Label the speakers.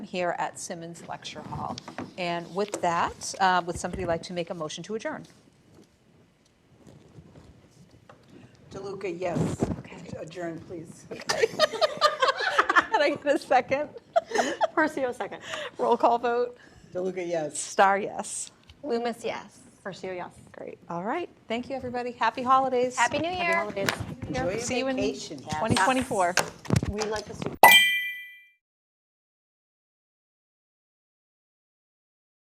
Speaker 1: here at Simmons Lecture Hall. And with that, uh, would somebody like to make a motion to adjourn?
Speaker 2: DeLuca, yes.
Speaker 1: Okay.
Speaker 2: Adjourn, please.
Speaker 1: Can I get a second?
Speaker 3: Percio, second.
Speaker 1: Roll call vote.
Speaker 2: DeLuca, yes.
Speaker 1: Star, yes.
Speaker 4: Loomis, yes.
Speaker 3: Percio, yes.
Speaker 1: Great. All right. Thank you, everybody. Happy holidays.
Speaker 4: Happy New Year.
Speaker 3: Happy holidays.
Speaker 2: Enjoy your
Speaker 1: See you in
Speaker 2: vacation.
Speaker 1: 2024.
Speaker 3: We like the.